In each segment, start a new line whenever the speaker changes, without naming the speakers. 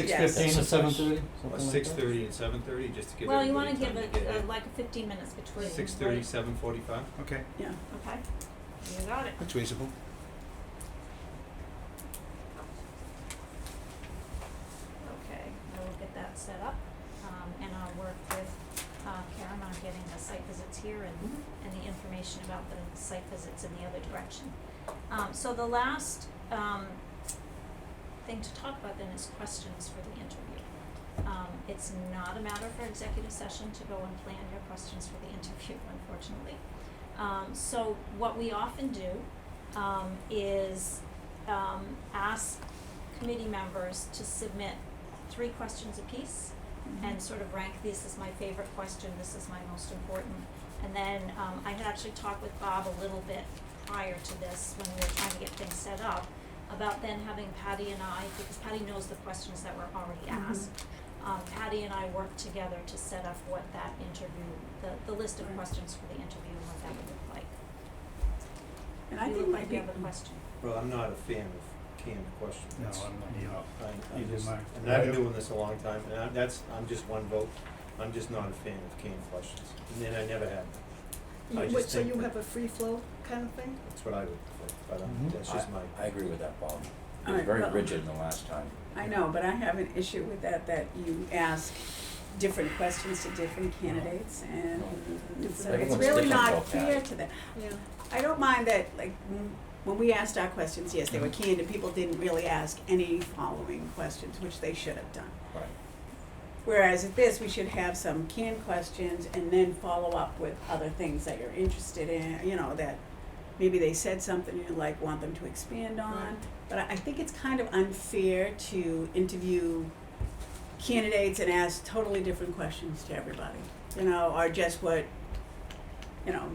six
Yes.
fifteen to
Yes.
seven thirty, something like that?
Six thirty and seven thirty, just to give
Well, you
everybody
wanna
time to
give
get
it,
here.
uh, like fifteen minutes between, right?
Six thirty, seven forty-five?
Okay,
yeah.
Okay, you got it.
that's reasonable.
Okay, I will get that set up, um, and I'll work with, uh, Karen on getting the site visits here and, and the information about the site visits in the other direction. Um, so the last, um, thing to talk about then is questions for the interview. Um, it's not a matter for executive session to go and plan your questions for the interview, unfortunately. Um, so what we often do, um, is, um, ask committee members to submit three questions apiece and sort of rank, this is my favorite question, this is my most important. And then, um, I had actually talked with Bob a little bit prior to this, when we were trying to get things set up, about then having Patty and I, because Patty knows the questions that were already
Mhm.
asked, um, Patty and I worked together to set up what that interview, the, the list of
Right.
questions for the interview and what that would look like.
And I
You
think
look
my
like you have a
big-
question.
Well, I'm not a fan of canned questions.
No,
That's-
I'm not
you
either.
know, I- I
Either
just,
am I.
and I've been
Yeah.
doing this a long time, and I, that's, I'm just one vote. I'm just not a fan of canned questions, and then I never have, them. I
You
just
would, so
think
you
that-
have a free flow kind of thing?
that's what I would prefer, but um,
Mhm.
that's just my.
I agree with that, Bob.
All
It was
right,
very
well-
rigid the last time.
I know, but I have an issue with that, that you ask different questions to different candidates and so it's
Everyone's
really
different,
not
though,
fair
Patty.
to them.
Yeah.
I don't mind that, like, m- when we asked our questions, yes, they were
Mm-hmm.
canned and people didn't really ask any following questions, which they should have done.
Right.
Whereas at this, we should have some canned questions and then follow up with other things that you're interested in, you know, that maybe they said something you like, want them to expand on. But I I think it's kind of unfair to interview candidates and ask totally different questions to everybody, you know, or just what, you know,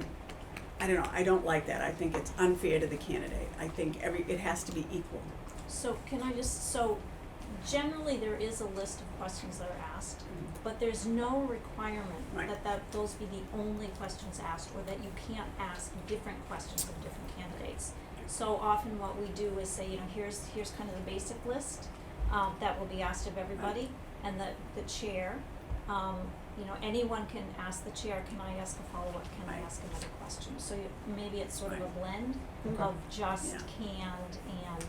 I don't know, I don't like that. I think it's unfair to the candidate. I think every, it has to be equal.
So can I just, so generally there is a list of questions that are asked, but there's no requirement
Right.
that that those be the only questions asked or that you can't ask different questions of different candidates. So often what we do is say, you know, here's, here's kind of the basic list, um, that will be asked of everybody and the, the chair, um, you know, anyone can ask the chair, can I ask a follow-up, can I
Right.
ask another question? So you, maybe it's sort of a
Right.
blend
Okay.
of just
Yeah.
canned and,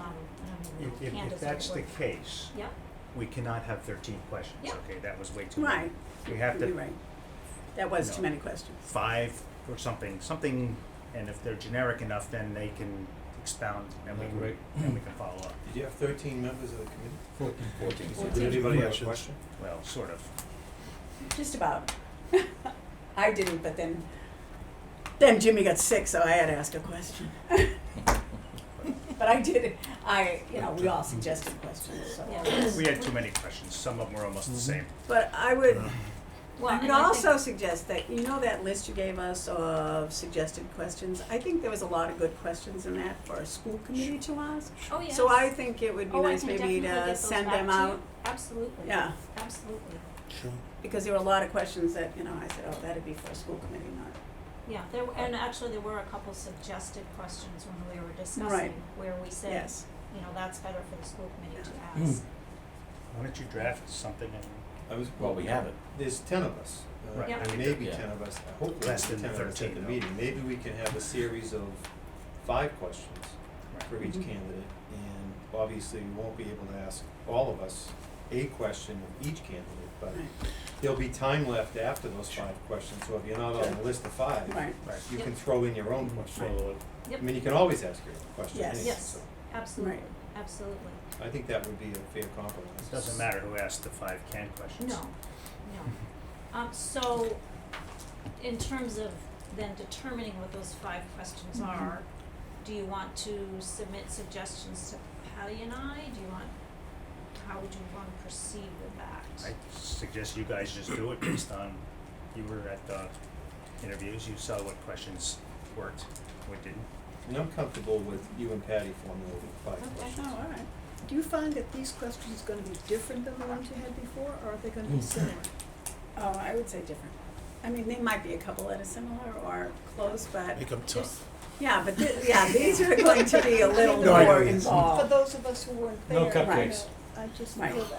If,
I don't even know,
if,
canned
if
is the right
that's the
word.
case,
Yep,
we cannot have thirteen questions,
Yeah.
okay, that was way too many.
Right,
We have
you're
to
right. That was too
No.
many questions.
five or something, something, and if they're generic enough, then they can expound and we can,
Right.
and we can follow up,
Did you have thirteen members of the committee?
Fourteen.
Fourteen.
Did
Fourteen.
anybody have a
Questions.
question?
well, sort of.
Just about. I didn't, but then, then Jimmy got sick, so I had to ask a question. But I did, I, you know, we all suggested questions, so.
yeah.
We had too many questions, some of them were almost the
Mm-hmm.
same.
But I would,
Well,
I
and
would
I
also
think,
suggest that, you know that list you gave us of suggested questions? I think there was a lot of good questions in that for a school committee to ask.
oh, yes.
So I think it would be
Oh, I
nice
can
maybe
definitely get
to
those
send
back
them
to you.
out.
Absolutely.
Yeah,
Absolutely.
Sure.
because there were a lot of questions that, you know, I said, oh, that'd be for a school committee, not
Yeah, there, w- and actually there were a couple suggested questions when we were discussing, where we said,
Yes.
you know, that's better for the school committee to ask.
Why don't you draft something and
I was.
Well, we have it.
There's ten of us, uh,
Right.
Yeah.
and maybe
Yeah.
ten of us, hopefully
Less
ten
than
of us at
13
the
though.
meeting, maybe we can have a series of five questions for each
Mhm.
candidate, and obviously we won't be able to ask all of us a question of each candidate, but
Right.
there'll be time left after those five questions, so if you're not on the list of five,
Right,
Right.
you
Yep.
can throw in your own question.
follow it.
I mean, you can always ask your own question,
Yes.
anyway,
Yes.
so
Absolutely,
Right.
absolutely.
I think that would be a fair compromise.
Doesn't matter who asked the five canned questions.
No, no. Um, so, in terms of then determining what those five questions
Mhm.
are, do you want to submit suggestions to Patty and I? Do you want, how would you want to proceed with that?
I suggest you guys just do it based on, you were at the interviews, you saw what questions worked, what didn't.
And I'm comfortable with you and Patty formulating five
Okay.
oh,
questions.
all right.
Do you find that these questions are gonna be different than the ones you had before, or are they gonna
Mm.
be similar?
Oh, I would say different. I mean, they might be a couple that are similar or close, but,
Make them tough.
yeah, but, thi- yeah, these are going to be a little
No, I
more
know.
For
involved.
those of us who weren't
No
there, I
cupcakes.
know, I I just
Oh. Right.
feel that.